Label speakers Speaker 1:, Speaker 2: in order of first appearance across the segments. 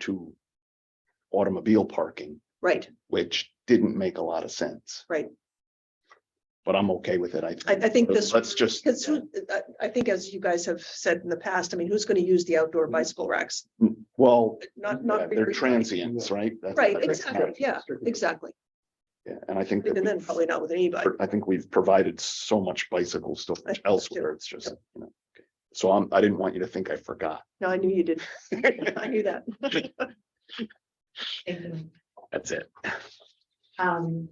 Speaker 1: to automobile parking,
Speaker 2: Right,
Speaker 1: which didn't make a lot of sense.
Speaker 2: Right.
Speaker 1: But I'm okay with it. I.
Speaker 2: I, I think this.
Speaker 1: Let's just,
Speaker 2: Because who, I, I think as you guys have said in the past, I mean, who's gonna use the outdoor bicycle racks?
Speaker 1: well,
Speaker 2: Not,
Speaker 1: Mm-hmm. yeah,
Speaker 2: not.
Speaker 1: they're
Speaker 2: really-
Speaker 1: transients, right? That's-
Speaker 2: Right,
Speaker 1: that's-
Speaker 2: exactly, yeah, exactly.
Speaker 1: Yeah, and I think. that
Speaker 2: Even then,
Speaker 1: we've-
Speaker 2: probably not with any bike.
Speaker 1: I think we've provided so much bicycle stuff
Speaker 2: I think so,
Speaker 1: elsewhere. It's just, you know. So I'm, I didn't want you to think I forgot.
Speaker 2: No, I knew you did. I knew that.
Speaker 3: Thank you.
Speaker 1: That's it.
Speaker 3: Um.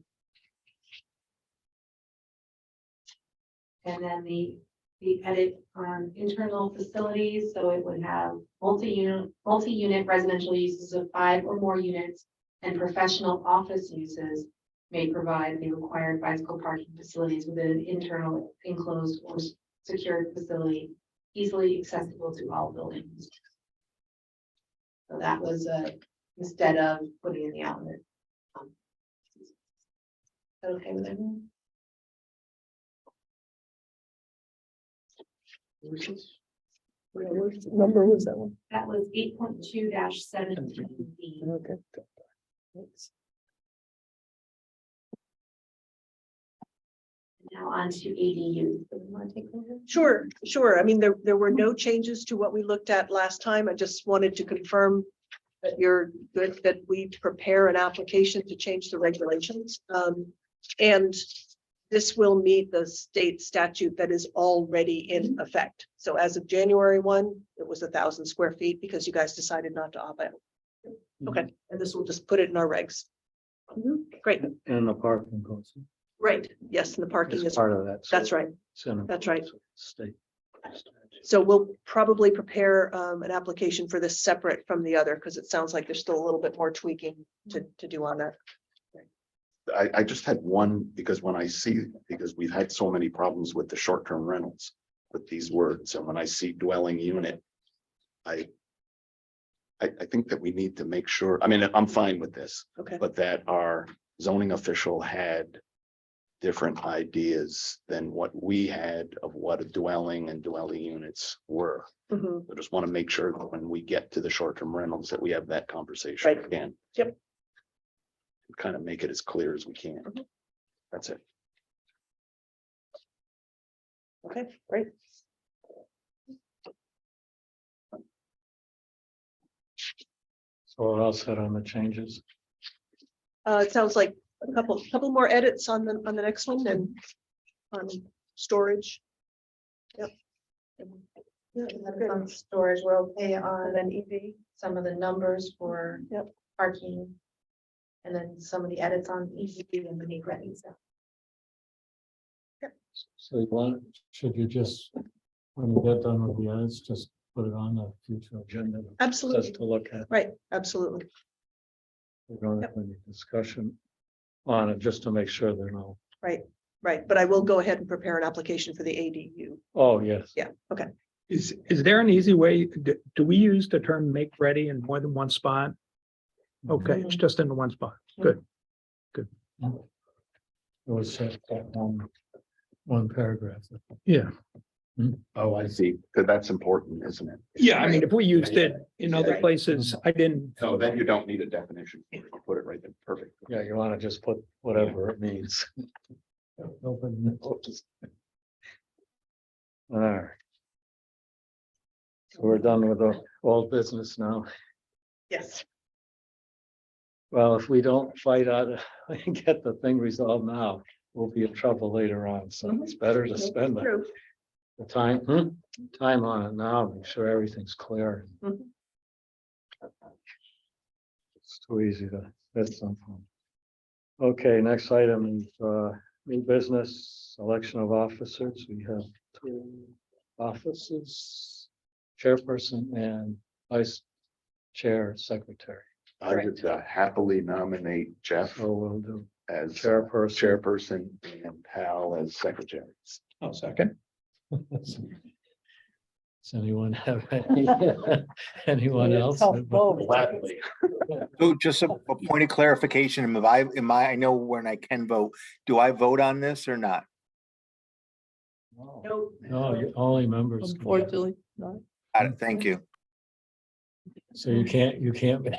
Speaker 3: And then the, the edit on internal facilities, so it would have multi-unit, multi-unit residential uses of five or more units. And professional office uses may provide the required bicycle parking facilities within an internal enclosed or s- secured facility. Easily accessible to all buildings. So that was, uh, instead of putting in the outlet. Okay with everyone?
Speaker 2: Number was that one?
Speaker 3: That was eight point two seventeen B.
Speaker 2: Okay.
Speaker 3: Now on to ADU. So we wanna take over?
Speaker 2: Sure, sure. I mean, there, there were no changes to what we looked at last time. I just wanted to confirm that you're good, that we prepare an application to change the regulations. Um, and this will meet the state statute that is already in effect. So as of January one, it was a thousand square feet because you guys decided not to opt out. Okay, and this will just put it in our regs. Great,
Speaker 4: And the parking goes.
Speaker 2: right. Yes, and the parking
Speaker 4: It's
Speaker 2: is,
Speaker 4: part of that. so
Speaker 2: that's right.
Speaker 4: it's in a-
Speaker 2: that's right.
Speaker 4: State.
Speaker 2: So we'll probably prepare um an application for this separate from the other, because it sounds like there's still a little bit more tweaking to to do on that.
Speaker 1: I, I just had one, because when I see, because we've had so many problems with the short-term rentals with these words, and when I see dwelling unit, I I, I think that we need to make sure, I mean, I'm fine with this,
Speaker 2: Okay,
Speaker 1: but that our zoning official had different ideas than what we had of what a dwelling and dwelling units were.
Speaker 2: Mhm.
Speaker 1: I just want to make sure that when we get to the short-term rentals that we have that conversation
Speaker 2: Right.
Speaker 1: again.
Speaker 2: Yep.
Speaker 1: Kind of make it as clear as we can.
Speaker 2: Mhm.
Speaker 1: That's it.
Speaker 2: okay, great.
Speaker 4: So what else said on the changes?
Speaker 2: Uh, it sounds like a couple, couple more edits on the, on the next one and on storage. Yep. Yeah,
Speaker 3: And then
Speaker 2: good.
Speaker 3: on Storage, we're okay on
Speaker 2: And then EV,
Speaker 3: some of the numbers for
Speaker 2: Yep.
Speaker 3: parking. And then some of the edits on EDU and the new revenue stuff.
Speaker 4: So you want, should you just, when you get done with the others, just put it on the future agenda? Just
Speaker 2: absolutely,
Speaker 4: to look at,
Speaker 2: right, absolutely.
Speaker 4: we don't have any discussion on it, just to make sure they're not,
Speaker 2: Right, but I will go ahead and prepare an application for the ADU.
Speaker 4: oh, yes.
Speaker 2: Yeah, okay.
Speaker 5: Is, is there an easy way, do, do we use the term make ready in more than one spot? Okay, it's just in the one spot. Good.
Speaker 4: It was said that one, one paragraph.
Speaker 5: Yeah.
Speaker 1: Oh, I see. That's important, isn't it?
Speaker 5: Yeah, I mean, if we used it in other
Speaker 3: Right.
Speaker 5: places, I didn't,
Speaker 1: So then you don't need a definition. I'll Put it right there. Perfect.
Speaker 4: Yeah, you want to just put whatever it means. Open. All right. So We're done with the old business now.
Speaker 2: Yes.
Speaker 4: Well, if we don't fight out, and get the thing resolved now, we'll be in trouble later on. So it's better to spend the
Speaker 2: True.
Speaker 4: the time, hmm, time on it now, make sure everything's clear.
Speaker 2: Mhm.
Speaker 4: It's too easy to, that's something. Okay, next item is uh, new business, election of officers. We have two offices. Chairperson and vice chair, secretary.
Speaker 1: I would uh, happily nominate Jeff
Speaker 4: So we'll do
Speaker 1: as
Speaker 4: chairperson.
Speaker 1: chairperson and Hal as secretary.
Speaker 5: oh, second.
Speaker 4: Does anyone have any- anyone else?
Speaker 1: Gladly.
Speaker 6: So just a a point of clarification, am I, am I, I know when I can vote, do I vote on this or not?
Speaker 4: Oh, No, you- only members. can vote.
Speaker 6: Got it, Thank you.
Speaker 4: So you can't, you can't